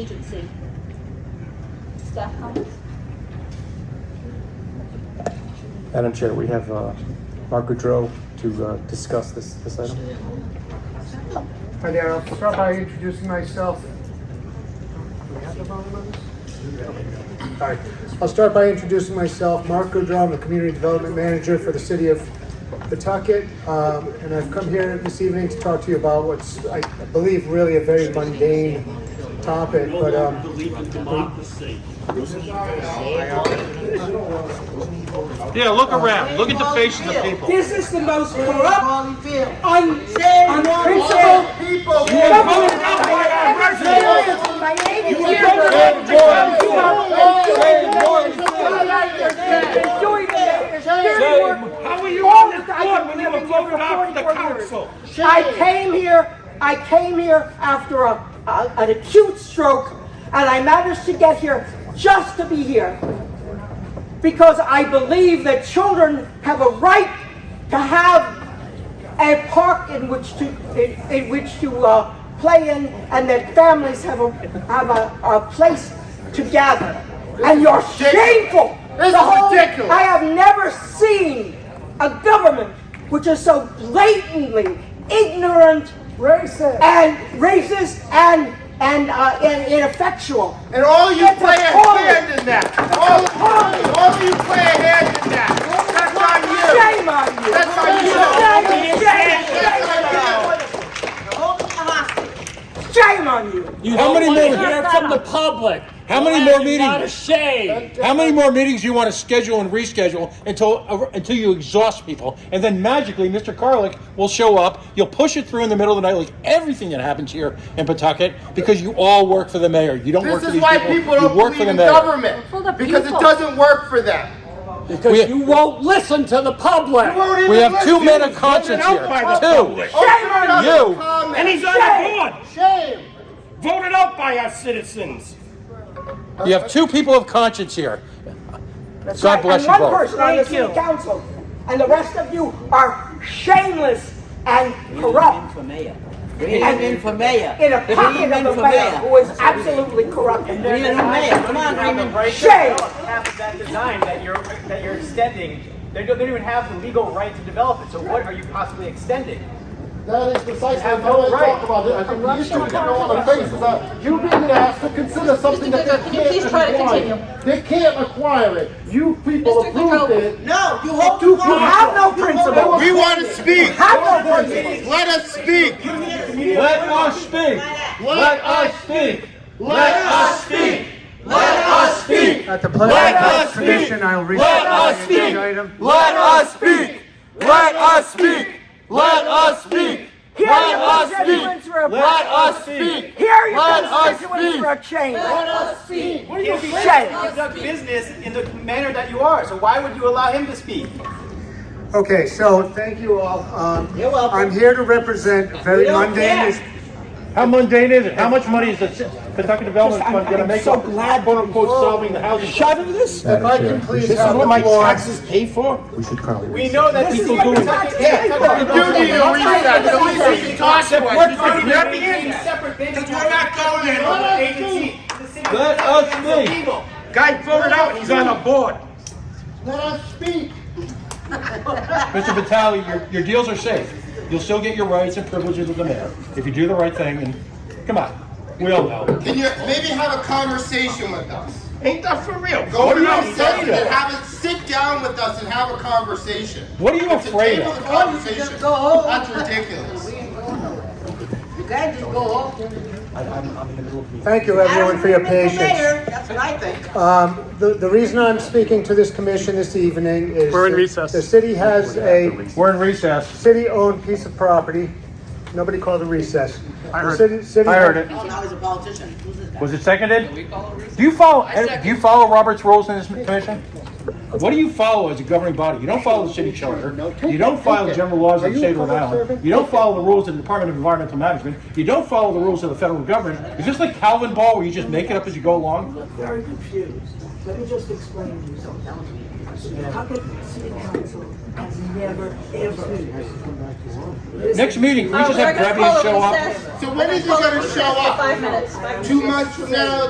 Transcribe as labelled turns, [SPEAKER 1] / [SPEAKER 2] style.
[SPEAKER 1] agency. Staff comments?
[SPEAKER 2] Madam Chair, we have uh, Mark Goudreau to uh, discuss this, this item.
[SPEAKER 3] Hi there, I'll start by introducing myself. Do we have the volume on this? Sorry. I'll start by introducing myself, Mark Goodrow, I'm the Community Development Manager for the City of Pawtucket. Um, And I've come here this evening to talk to you about what's, I believe, really a very mundane topic, but um,
[SPEAKER 4] Yeah, look around. Look at the faces of people.
[SPEAKER 5] This is the most corrupt, un- unprincipled people. You have voted out by our residents. You have voted out the people you have voted out. How are you on this board when you were voted out for the council? I came here, I came here after a, a- an acute stroke, and I managed to get here just to be here because I believe that children have a right to have a park in which to in, in which to uh, play in, and that families have a have a, a place to gather. And you're shameful.
[SPEAKER 3] This is
[SPEAKER 5] The whole-
[SPEAKER 3] ridiculous.
[SPEAKER 5] I have never seen a government which is so blatantly ignorant,
[SPEAKER 3] racist.
[SPEAKER 5] and racist, and and uh, and ineffectual.
[SPEAKER 3] And all you
[SPEAKER 5] It's
[SPEAKER 3] play a
[SPEAKER 5] appalling.
[SPEAKER 3] hand in that. All, all of you play a hand in that. That's on you.
[SPEAKER 5] Shame on you.
[SPEAKER 3] That's on you.
[SPEAKER 5] Shame, shame, shame.
[SPEAKER 3] That's on you.
[SPEAKER 5] Shame on you!
[SPEAKER 6] How many more hear from the public? How many more meetings? Not ashamed. How many more meetings you want to schedule and reschedule until until you exhaust people, and then magically Mr. Carlick will show up. You'll push it through in the middle of the night, like everything that happens here in Pawtucket, because you all work for the mayor. You don't work
[SPEAKER 3] This
[SPEAKER 6] for
[SPEAKER 3] is
[SPEAKER 6] these
[SPEAKER 3] why
[SPEAKER 6] people.
[SPEAKER 3] people
[SPEAKER 6] you
[SPEAKER 3] don't
[SPEAKER 6] work
[SPEAKER 3] believe
[SPEAKER 6] for the
[SPEAKER 3] in
[SPEAKER 6] mayor.
[SPEAKER 1] For the
[SPEAKER 3] government. Because it
[SPEAKER 1] people.
[SPEAKER 3] doesn't work for them.
[SPEAKER 6] We-
[SPEAKER 7] Because you won't listen to the public.
[SPEAKER 3] You won't even
[SPEAKER 6] We have two
[SPEAKER 3] listen.
[SPEAKER 6] men of conscience
[SPEAKER 4] out
[SPEAKER 6] here.
[SPEAKER 4] by the
[SPEAKER 6] Two.
[SPEAKER 4] public.
[SPEAKER 3] Open it up
[SPEAKER 6] you.
[SPEAKER 3] and comment.
[SPEAKER 4] And he's on the board,
[SPEAKER 3] Shame.
[SPEAKER 4] voted out by our citizens.
[SPEAKER 6] You have two people of conscience here.
[SPEAKER 5] That's
[SPEAKER 6] God
[SPEAKER 5] right.
[SPEAKER 6] bless
[SPEAKER 5] and
[SPEAKER 6] you
[SPEAKER 5] one
[SPEAKER 6] both.
[SPEAKER 5] person on the city council, and the rest of you are shameless and corrupt
[SPEAKER 8] Bring him in for mayor.
[SPEAKER 5] in a
[SPEAKER 8] Bring
[SPEAKER 5] pocket
[SPEAKER 8] him in
[SPEAKER 5] of the
[SPEAKER 8] for
[SPEAKER 5] mayor who is absolutely corrupt.
[SPEAKER 8] Bring him in for mayor. Come on, bring him.
[SPEAKER 5] Shame!
[SPEAKER 9] "Oh, half that design that you're that you're extending. They don't, they don't even have the legal right to develop it. So what are you possibly extending?
[SPEAKER 3] That is precisely
[SPEAKER 9] Have
[SPEAKER 3] what I
[SPEAKER 9] no right.
[SPEAKER 3] talk about it. I think the issue that all the face is that you being asked to consider something that they
[SPEAKER 1] Goodrow,
[SPEAKER 3] can't
[SPEAKER 1] can you please try to continue?
[SPEAKER 3] acquire. They can't acquire it. You people
[SPEAKER 1] Mr.
[SPEAKER 3] approved
[SPEAKER 1] Goodrow.
[SPEAKER 3] it.
[SPEAKER 8] No, you hope
[SPEAKER 5] You have no principle.
[SPEAKER 3] We want to speak.
[SPEAKER 5] Have no principle.
[SPEAKER 3] Let us speak.
[SPEAKER 6] Let us speak.
[SPEAKER 3] Let us
[SPEAKER 6] speak.
[SPEAKER 3] Let us
[SPEAKER 6] speak. Let us speak.
[SPEAKER 3] At the pleasure
[SPEAKER 6] Let
[SPEAKER 3] of
[SPEAKER 6] us
[SPEAKER 3] the commission,
[SPEAKER 6] speak.
[SPEAKER 3] I will read
[SPEAKER 6] Let us
[SPEAKER 3] the
[SPEAKER 6] speak.
[SPEAKER 3] item.
[SPEAKER 6] Let us speak. Let us speak. Let us speak.
[SPEAKER 5] Hear
[SPEAKER 6] Let
[SPEAKER 5] your
[SPEAKER 6] us
[SPEAKER 5] constituents
[SPEAKER 6] speak.
[SPEAKER 5] for a
[SPEAKER 6] Let us speak.
[SPEAKER 5] Hear your
[SPEAKER 6] Let us
[SPEAKER 5] constituents
[SPEAKER 6] speak.
[SPEAKER 5] for a change.
[SPEAKER 9] What are you
[SPEAKER 5] Shame.
[SPEAKER 9] conduct business in the manner that you are. So why would you allow him to speak?
[SPEAKER 3] Okay, so thank you all. Um,
[SPEAKER 8] You're welcome.
[SPEAKER 3] I'm here to represent a very
[SPEAKER 8] We don't
[SPEAKER 3] mundane.
[SPEAKER 8] care.
[SPEAKER 3] is-
[SPEAKER 6] How mundane is it? How much money is the Kentucky Development Fund going to make up quote unquote solving the housing? Shut up this.
[SPEAKER 3] If I can please
[SPEAKER 6] This is
[SPEAKER 3] have
[SPEAKER 6] what
[SPEAKER 3] the
[SPEAKER 6] my
[SPEAKER 3] floor.
[SPEAKER 6] taxes pay for?
[SPEAKER 2] We should probably.
[SPEAKER 9] We know that
[SPEAKER 5] This is
[SPEAKER 9] people
[SPEAKER 5] what
[SPEAKER 9] do
[SPEAKER 5] the taxes pay for.
[SPEAKER 3] You need a reset. so we can talk
[SPEAKER 6] Except
[SPEAKER 3] to it.
[SPEAKER 6] we're not
[SPEAKER 9] Being separate things. You're not going in
[SPEAKER 3] Let us
[SPEAKER 9] agency. The city
[SPEAKER 6] Let
[SPEAKER 9] of
[SPEAKER 6] us
[SPEAKER 9] Philadelphia is
[SPEAKER 6] speak.
[SPEAKER 9] illegal.
[SPEAKER 4] Guy voted out, and he's on the board.
[SPEAKER 3] Let us speak.
[SPEAKER 6] Mr. Vitale, your, your deals are safe. You'll still get your rights and privileges of the mayor if you do the right thing. And come on, we all know.
[SPEAKER 10] Can you maybe have a conversation with us?
[SPEAKER 4] Ain't that for real?
[SPEAKER 10] Go
[SPEAKER 4] Voted
[SPEAKER 10] to
[SPEAKER 4] out,
[SPEAKER 10] our
[SPEAKER 4] he's on
[SPEAKER 10] session
[SPEAKER 4] the
[SPEAKER 10] and
[SPEAKER 4] board.
[SPEAKER 10] have it, sit down with us and have a conversation.
[SPEAKER 6] What are you
[SPEAKER 10] To
[SPEAKER 6] afraid
[SPEAKER 10] table
[SPEAKER 6] of?
[SPEAKER 10] the conversation. That's ridiculous.
[SPEAKER 3] Thank you, everyone, for your patience.
[SPEAKER 8] That's what I think.
[SPEAKER 3] Um, The the reason I'm speaking to this commission this evening is.
[SPEAKER 2] We're in
[SPEAKER 3] that
[SPEAKER 2] recess.
[SPEAKER 3] The city has a
[SPEAKER 6] We're in recess.
[SPEAKER 3] city-owned piece of property. Nobody called a recess. I
[SPEAKER 2] heard
[SPEAKER 6] I heard it.
[SPEAKER 8] Oh, now he's a politician. Who's this guy?
[SPEAKER 6] Was it seconded? Do you follow, do you follow Robert's rules in this commission? What do you follow as a governing body? You don't follow the city charter. You don't follow the general laws of the state of Rhode Island. You don't follow the rules of the Department of Environmental Management. You don't follow the rules of the federal government. Is this like Calvin Ball where you just make it up as you go along?
[SPEAKER 5] Very confused. Let me just explain to you something. How could city council has never, ever.
[SPEAKER 6] Next
[SPEAKER 8] Oh,
[SPEAKER 6] meeting, we just have Grevy show up.
[SPEAKER 10] So when is he gonna show up?
[SPEAKER 5] Five minutes.
[SPEAKER 10] Two months from now,